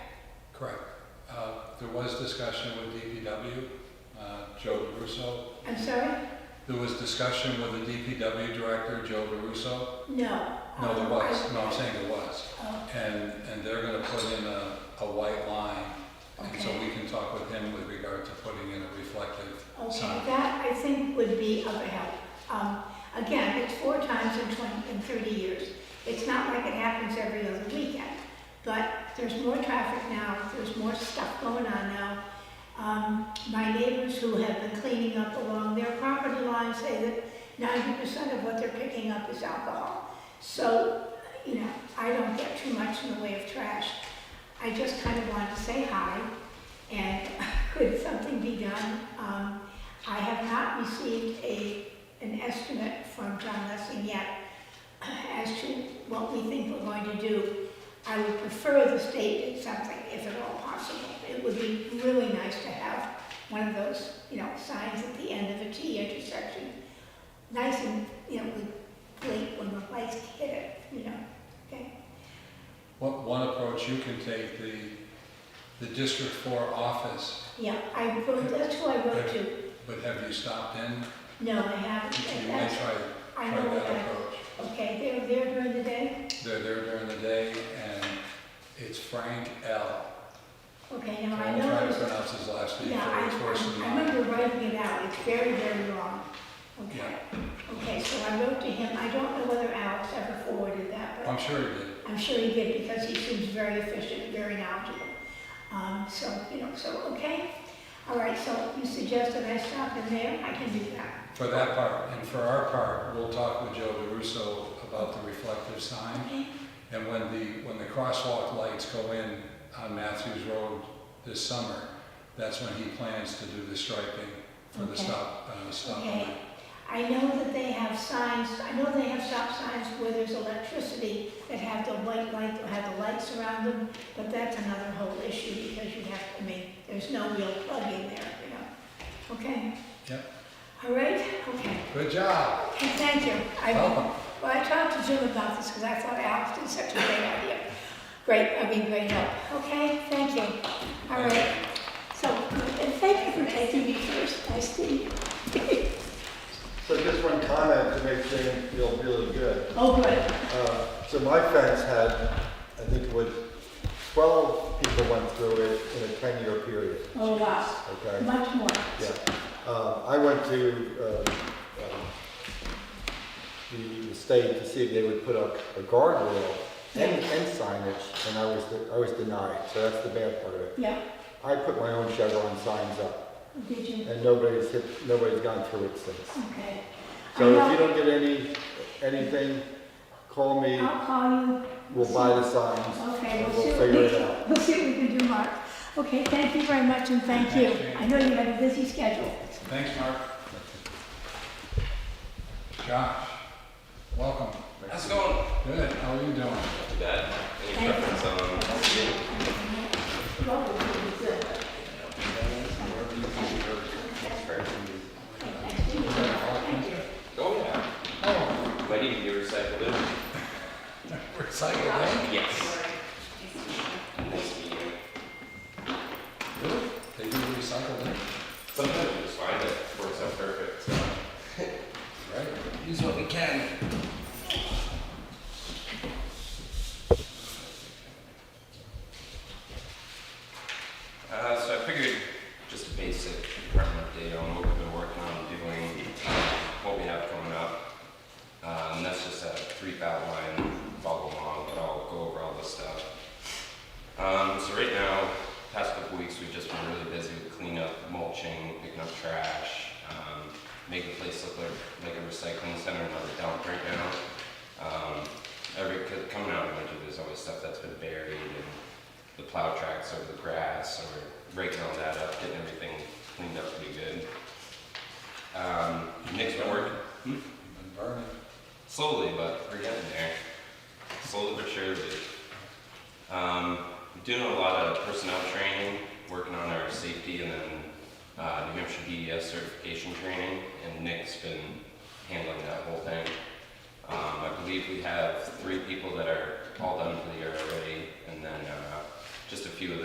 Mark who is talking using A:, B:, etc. A: Correct. Uh, There was discussion with DPW, uh, Joe DeRusso.
B: I'm sorry?
A: There was discussion with the DPW director, Joe DeRusso.
B: No.
A: No, there was, no, I'm saying there was.
B: Oh,
A: And, and they're gonna put in a, a white line. And so
B: Okay.
A: we can talk with him with regard to putting in a reflective
B: Okay,
A: sign.
B: that I think would be of help. Um, Again, it's four times in 20, in 30 years. It's not like it happens every other weekend, but there's more traffic now, there's more stuff going on now. Um, My neighbors who have been cleaning up along their property line say that 90% of what they're picking up is alcohol. So, you know, I don't get too much in the way of trash. I just kind of wanted to say hi, and could something be done? Um, I have not received a, an estimate from John Lessing yet as to what we think we're going to do. I would prefer the state did something, if at all possible. It would be really nice to have one of those, you know, signs at the end of a T intersection. Nice and, you know, with blink when the lights hit it, you know, okay?
A: One, one approach you can take, the, the District Four office,
B: Yeah, I wrote, that's who I wrote to.
A: but have you stopped in?
B: No, I haven't.
A: You may
B: That's,
A: try,
B: I
A: try
B: know
A: that
B: that.
A: approach.
B: Okay, they're there during the day?
A: They're there during the day, and it's Frank L.
B: Okay,
A: I'm
B: now I
A: trying
B: know.
A: to pronounce his last name
B: Yeah,
A: for it's worse than
B: I, I
A: mine.
B: remember writing it out, it's very, very long. Okay, okay, so I wrote to him, I don't know whether Alex ever forwarded that, but
A: I'm sure he did.
B: I'm sure he did, because he seems very efficient, very knowledgeable. Um, so, you know, so, okay, all right, so you suggest that I stop in there, I can do that.
A: For that part, and for our part, we'll talk with Joe DeRusso about the reflective sign.
B: Okay,
A: And when the, when the crosswalk lights go in on Matthews Road this summer, that's when he plans to do the striping for the
B: Okay.
A: stop, uh, stop
B: Okay.
A: light.
B: I know that they have signs, I know they have stop signs where there's electricity that have the white light, that have the lights around them, but that's another whole issue because you have, I mean, there's no real plug in there, you know? Okay?
A: Yep.
B: All right, okay.
A: Good job.
B: Okay, thank you. I-
A: Welcome.
B: Well, I talked to Jim about this because I thought Alex did such a great idea. Great, I mean, great help. Okay, thank you. All right. So, and thank you for taking me first, I see.
C: So just one comment to make Jane feel really good.
B: Oh, good.
C: Uh, So my fence had, I think it was 12 people went through it in a 10-year period,
B: Oh, wow.
C: okay?
B: Much more.
C: Yeah. Uh, I went to uh, um, the- the state to see if they would put up a guardrail and and signage, and I was de- I was denied, so that's the bad part of it.
B: Yeah,
C: I put my own Chevron signs up,
B: did you?
C: and nobody's hit, nobody's gone through it since.
B: Okay.
C: So
B: I
C: if
B: know-
C: you don't get any, anything, call me,
B: I'll call you.
C: we'll buy the signs.
B: Okay, we'll
C: We'll
B: see, what
C: figure
B: we-
C: it out.
B: we'll see what we can do, Mark. Okay, thank you very much and thank you.
A: Thanks, Jane.
B: I know you have a busy schedule.
A: Thanks, Mark. Josh, welcome.
D: How's it going?
A: Good, how are you doing?
D: Not too bad. Any
B: Thank you.
D: preference on?
B: Well, we'll do it. Thank you. Thank you.
D: Oh yeah.
A: Oh,
D: Wedding you recycled it?
A: recycle, eh?
D: Yes. Nice to meet you.
A: Really? They do recycle, eh?
D: Sometimes you just find it works out perfect. So.
A: Right.
E: use what we can.
D: Uh, so I figured just a basic department update on what we've been working on doing, what we have coming up. Uh, and that's just a brief outline, follow along, but I'll go over all this stuff. Um, so right now, past couple weeks, we've just been really busy with cleanup, mulching, picking up trash, um, making the place look like, like a recycling center, not a dump right now. Um, every, 'cause coming out of winter, there's always stuff that's been buried and the plow tracks over the grass or breaking all that up, getting everything cleaned up pretty good. Um, Nick's been working
A: You've been burning.
D: slowly, but we're getting there. Slowly but surely. Um, we're doing a lot of personnel training, working on our safety, and then uh, New Hampshire DES certification training, and Nick's been handling that whole thing. Um, I believe we have three people that are all done for the year already, and then uh, just a few of